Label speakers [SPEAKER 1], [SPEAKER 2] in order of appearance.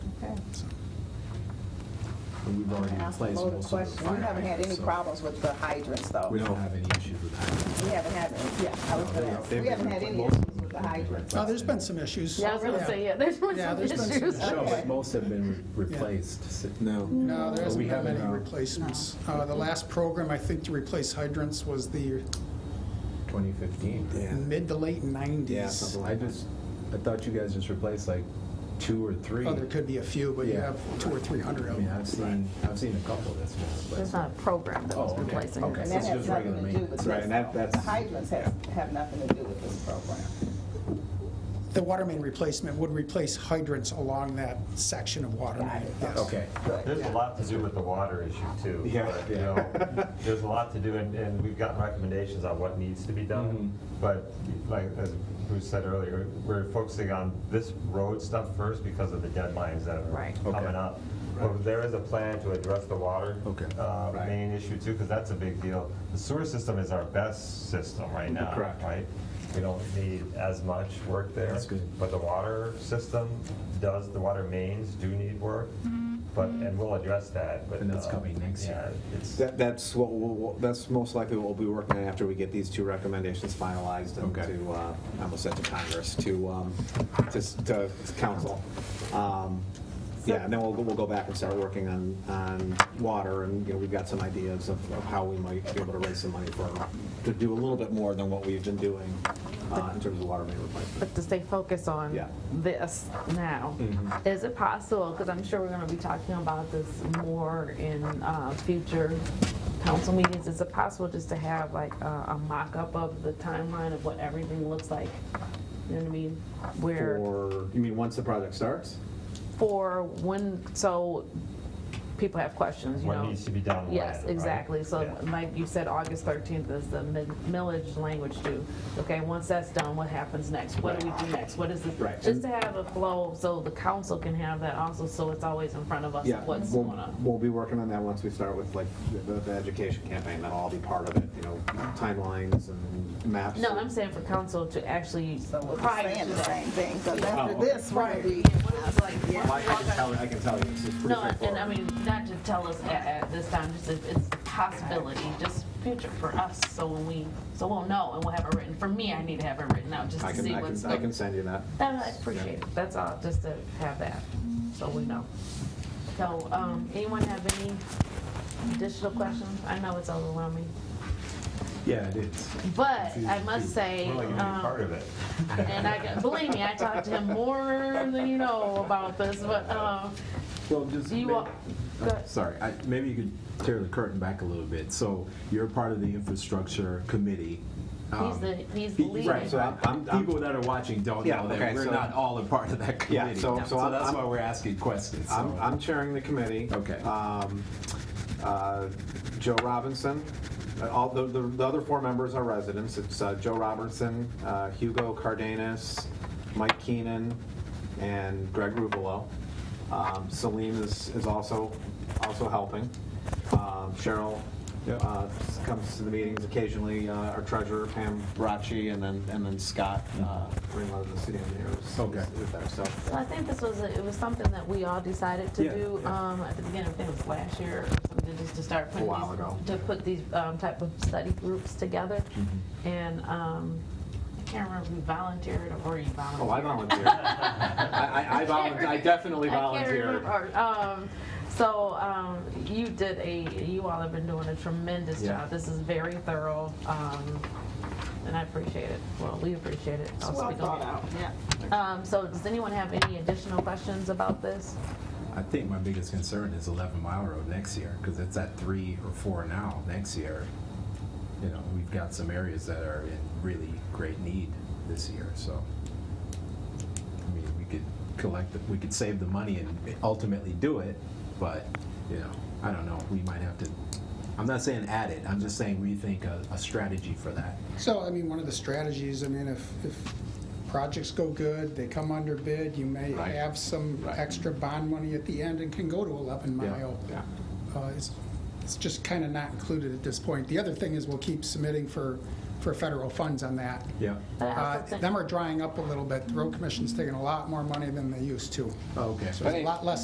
[SPEAKER 1] Okay.
[SPEAKER 2] And we've already
[SPEAKER 1] Ask a
[SPEAKER 2] replaced
[SPEAKER 1] loaded
[SPEAKER 2] most of the
[SPEAKER 1] question.
[SPEAKER 2] fire.
[SPEAKER 1] We haven't had any
[SPEAKER 2] hydrants, so
[SPEAKER 1] problems with the hydrants, though.
[SPEAKER 2] We don't have any issues with hydrants.
[SPEAKER 1] We haven't had, any. yeah, I was
[SPEAKER 2] No, they-
[SPEAKER 1] gonna ask.
[SPEAKER 2] they've
[SPEAKER 1] We haven't
[SPEAKER 2] been
[SPEAKER 1] had any
[SPEAKER 2] replaced.
[SPEAKER 1] issues with the hydrants.
[SPEAKER 3] Oh, there's been some issues.
[SPEAKER 4] Yeah, I was gonna say, yeah, there's been
[SPEAKER 3] Yeah,
[SPEAKER 4] some
[SPEAKER 3] there's been some
[SPEAKER 4] issues.
[SPEAKER 3] issues.
[SPEAKER 2] No,
[SPEAKER 1] Okay.
[SPEAKER 2] but most have been re-
[SPEAKER 3] Yeah.
[SPEAKER 2] replaced. S- No.
[SPEAKER 3] No, there
[SPEAKER 2] But we
[SPEAKER 3] hasn't been
[SPEAKER 2] haven't,
[SPEAKER 3] any
[SPEAKER 2] uh,
[SPEAKER 3] replacements. Uh, The last program, I think, to replace hydrants was the
[SPEAKER 2] 2015.
[SPEAKER 3] mid to late 90s.
[SPEAKER 2] Yeah, something like that. I just, I thought you guys just replaced like two or three.
[SPEAKER 3] Oh, there could be a few, but you
[SPEAKER 2] Yeah.
[SPEAKER 3] have two or 300
[SPEAKER 2] I
[SPEAKER 3] of
[SPEAKER 2] mean,
[SPEAKER 3] them.
[SPEAKER 2] I've seen, I've seen a couple that's been
[SPEAKER 4] There's
[SPEAKER 2] replaced.
[SPEAKER 4] not a program that
[SPEAKER 2] Oh,
[SPEAKER 4] was
[SPEAKER 2] okay,
[SPEAKER 4] replacing
[SPEAKER 2] okay.
[SPEAKER 4] it.
[SPEAKER 1] And
[SPEAKER 2] So
[SPEAKER 1] that
[SPEAKER 2] it's
[SPEAKER 1] has
[SPEAKER 2] just
[SPEAKER 1] nothing
[SPEAKER 2] regular
[SPEAKER 1] to do with
[SPEAKER 2] maintenance. Right,
[SPEAKER 1] this.
[SPEAKER 2] and that-
[SPEAKER 1] The
[SPEAKER 2] that's-
[SPEAKER 1] hydrants have, have nothing to do with this program.
[SPEAKER 3] The water main replacement would replace hydrants along that section of water
[SPEAKER 1] Got
[SPEAKER 3] main.
[SPEAKER 1] it.
[SPEAKER 3] yes.
[SPEAKER 2] Okay.
[SPEAKER 1] Good.
[SPEAKER 5] There's a lot to do with the water issue too.
[SPEAKER 2] Yeah.
[SPEAKER 5] but, you know, There's a lot to do and, and we've gotten recommendations on what needs to be done.
[SPEAKER 2] Mm-hmm.
[SPEAKER 5] But like, as Bruce said earlier, we're focusing on this road stuff first because of the deadlines that are
[SPEAKER 4] Right.
[SPEAKER 2] Okay.
[SPEAKER 5] coming up. But there is a plan to address the water.
[SPEAKER 2] Okay.
[SPEAKER 5] uh,
[SPEAKER 2] Right.
[SPEAKER 5] Main issue too, because that's a big deal. The sewer system is our best system right now,
[SPEAKER 2] Correct.
[SPEAKER 5] right? We don't need as much work there.
[SPEAKER 2] That's good.
[SPEAKER 5] But the water system does, the water mains do need work,
[SPEAKER 4] Mm-hmm.
[SPEAKER 5] but, and we'll address that, but.
[SPEAKER 2] And that's
[SPEAKER 5] uh,
[SPEAKER 2] coming next
[SPEAKER 5] yeah,
[SPEAKER 2] year.
[SPEAKER 5] it's-
[SPEAKER 6] That, that's what, we'll- we'll- that's most likely what we'll be working on after we get these two recommendations finalized and
[SPEAKER 2] Okay.
[SPEAKER 6] to, uh, I almost said to Congress, to, um, to, s- to council. Um, Yeah, and then we'll, we'll go back and start working on, on water, and, you know, we've got some ideas of, of how we might be able to raise some money for, to do a little bit more than what we've been doing, uh, in terms of water main replacement.
[SPEAKER 4] But to stay focused on
[SPEAKER 6] Yeah.
[SPEAKER 4] this now,
[SPEAKER 3] Mm-hmm.
[SPEAKER 4] is it possible, because I'm sure we're gonna be talking about this more in uh, future council meetings, is it possible just to have like a a mock-up of the timeline of what everything looks like? You know what I mean? Where,
[SPEAKER 6] Or, you mean, once the project starts?
[SPEAKER 4] for when, so people have questions, you know?
[SPEAKER 5] What needs to be done when,
[SPEAKER 4] Yes,
[SPEAKER 5] right?
[SPEAKER 4] exactly. So
[SPEAKER 5] Yeah.
[SPEAKER 4] like you said, August 13th is the mid- millage language due. Okay, once that's done, what happens next? What do we do next? What is
[SPEAKER 6] Right.
[SPEAKER 4] this? Just to have a flow so the council can have that also, so it's always in front of us
[SPEAKER 6] Yeah,
[SPEAKER 4] of what's
[SPEAKER 6] we'll-
[SPEAKER 4] going on.
[SPEAKER 6] We'll be working on that once we start with like the, the education campaign, that'll all be part of it, you know, timelines and maps.
[SPEAKER 4] No, I'm saying for council to actually
[SPEAKER 1] So we're
[SPEAKER 4] prior
[SPEAKER 1] saying
[SPEAKER 4] to
[SPEAKER 1] the
[SPEAKER 4] that.
[SPEAKER 1] same thing, because
[SPEAKER 6] Oh,
[SPEAKER 1] after
[SPEAKER 6] okay.
[SPEAKER 1] this, we're gonna be.
[SPEAKER 4] What is it like?
[SPEAKER 1] Yeah.
[SPEAKER 6] Well, I I can tell, I can tell you, it's it's pretty
[SPEAKER 4] No, and I
[SPEAKER 6] straightforward.
[SPEAKER 4] mean, not to tell us at, at this time, just if it's a possibility, just future for us, so when we, so we'll know and we'll have it written. For me, I need to have it written out just
[SPEAKER 6] I
[SPEAKER 4] to see
[SPEAKER 6] can, I
[SPEAKER 4] what's.
[SPEAKER 6] can, I can send you that.
[SPEAKER 4] I appreciate it, that's all, just to have that, so we know. So, um, anyone have any additional questions? I know it's overwhelming,
[SPEAKER 2] Yeah, it is.
[SPEAKER 4] but I must say,
[SPEAKER 5] We're like gonna be part
[SPEAKER 4] um,
[SPEAKER 5] of it.
[SPEAKER 4] and I, got- believe me, I talked to him more than you know about this, but, um,
[SPEAKER 2] Well, just.
[SPEAKER 4] do you all, go ahead.
[SPEAKER 2] Sorry, I, maybe you could tear the curtain back a little bit. So you're part of the infrastructure committee.
[SPEAKER 4] he's
[SPEAKER 2] Um,
[SPEAKER 4] the, he's the
[SPEAKER 2] Pe-
[SPEAKER 4] lead.
[SPEAKER 2] Right, so I'm- I'm-
[SPEAKER 6] I'm-
[SPEAKER 2] people that are watching don't
[SPEAKER 6] Yeah,
[SPEAKER 2] know that
[SPEAKER 6] okay,
[SPEAKER 2] we're
[SPEAKER 6] so-
[SPEAKER 2] not all a part of that
[SPEAKER 6] Yeah,
[SPEAKER 2] committee.
[SPEAKER 6] so- so I'm-
[SPEAKER 2] that's
[SPEAKER 6] I'm-
[SPEAKER 2] why we're asking questions. so-
[SPEAKER 6] I'm, I'm chairing the committee.
[SPEAKER 2] Okay.
[SPEAKER 6] Um, uh, Joe Robinson, uh, all, the, the the other four members are residents. It's uh, Joe Robinson, uh, Hugo Cardenas, Mike Keenan, and Greg Rubelo. Um, Salim is, is also, also helping. Um, Cheryl
[SPEAKER 2] Yep.
[SPEAKER 6] uh, comes to the meetings occasionally, uh, our treasurer Pam Bracci, and then, and then Scott uh, Ringler, the city engineer, is-
[SPEAKER 2] Okay.
[SPEAKER 6] is is there, so.
[SPEAKER 4] Well, I think this was, a- it was something that we all decided to
[SPEAKER 2] Yeah,
[SPEAKER 4] do
[SPEAKER 2] yeah.
[SPEAKER 4] um, at the beginning, I think it was last year, or something, just to start putting
[SPEAKER 6] A while ago.
[SPEAKER 4] these, to put these um, type of study groups together.
[SPEAKER 6] Mm-hmm.
[SPEAKER 4] And um, I can't remember if we volunteered or you
[SPEAKER 6] Oh, I
[SPEAKER 4] volunteered.
[SPEAKER 6] volunteer. I, I, I volunteer. I definitely
[SPEAKER 4] I
[SPEAKER 6] volunteer.
[SPEAKER 4] can't remember. Um, so um, you did a, you all have been doing a tremendous
[SPEAKER 2] Yeah.
[SPEAKER 4] job. This is very thorough, um, and I appreciate it. Well, we appreciate it. I'll
[SPEAKER 1] Well
[SPEAKER 4] speak on
[SPEAKER 1] thought
[SPEAKER 4] it.
[SPEAKER 1] out, yeah.
[SPEAKER 4] Um, so does anyone have any additional questions about this?
[SPEAKER 2] I think my biggest concern is 11 Mile Road next year, because it's at three or four now next year. You know, we've got some areas that are in really great need this year, so. I mean, we could collect, the- we could save the money and ultimately do it, but, you know, I don't know, we might have to, I'm not saying add it, I'm just saying rethink a, a strategy for that.
[SPEAKER 3] So, I mean, one of the strategies, I mean, if, if projects go good, they come under bid, you may
[SPEAKER 6] Right.
[SPEAKER 3] have some
[SPEAKER 6] Right.
[SPEAKER 3] extra bond money at the end and can go to 11
[SPEAKER 2] Yeah,
[SPEAKER 3] mile.
[SPEAKER 6] yeah.
[SPEAKER 3] Uh, It's, it's just kind of not included at this point. The other thing is we'll keep submitting for, for federal funds on that.
[SPEAKER 2] Yeah.
[SPEAKER 4] But I also
[SPEAKER 3] Uh,
[SPEAKER 4] think-
[SPEAKER 3] Them are drying up a little bit. The road commission's taking a lot more money than they used to.
[SPEAKER 6] Oh.
[SPEAKER 2] Oh, Okay.
[SPEAKER 3] So there's a lot less